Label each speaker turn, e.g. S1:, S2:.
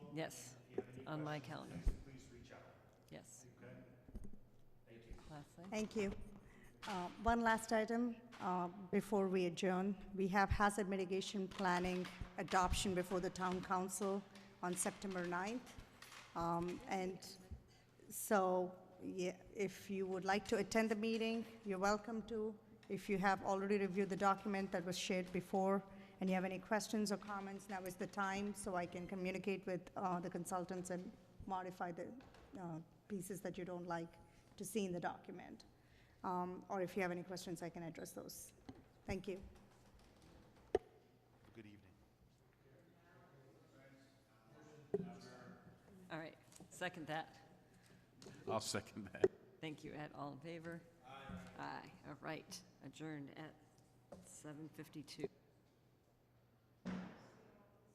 S1: Yes, on my calendar. Please reach out. Yes. Leslie?
S2: Thank you. Uh, One last item uh, before we adjourn. We have hazard mitigation planning adoption before the town council on September 9th. Um, And so yeah, if you would like to attend the meeting, you're welcome to. If you have already reviewed the document that was shared before and you have any questions or comments, now is the time so I can communicate with uh, the consultants and modify the uh, pieces that you don't like to see in the document. Um, Or if you have any questions, I can address those. Thank you.
S3: Good evening.
S1: All right, second that.
S3: I'll second that.
S1: Thank you, Ed. All in favor? Aye. Aye, all right. Adjourned at 7:52.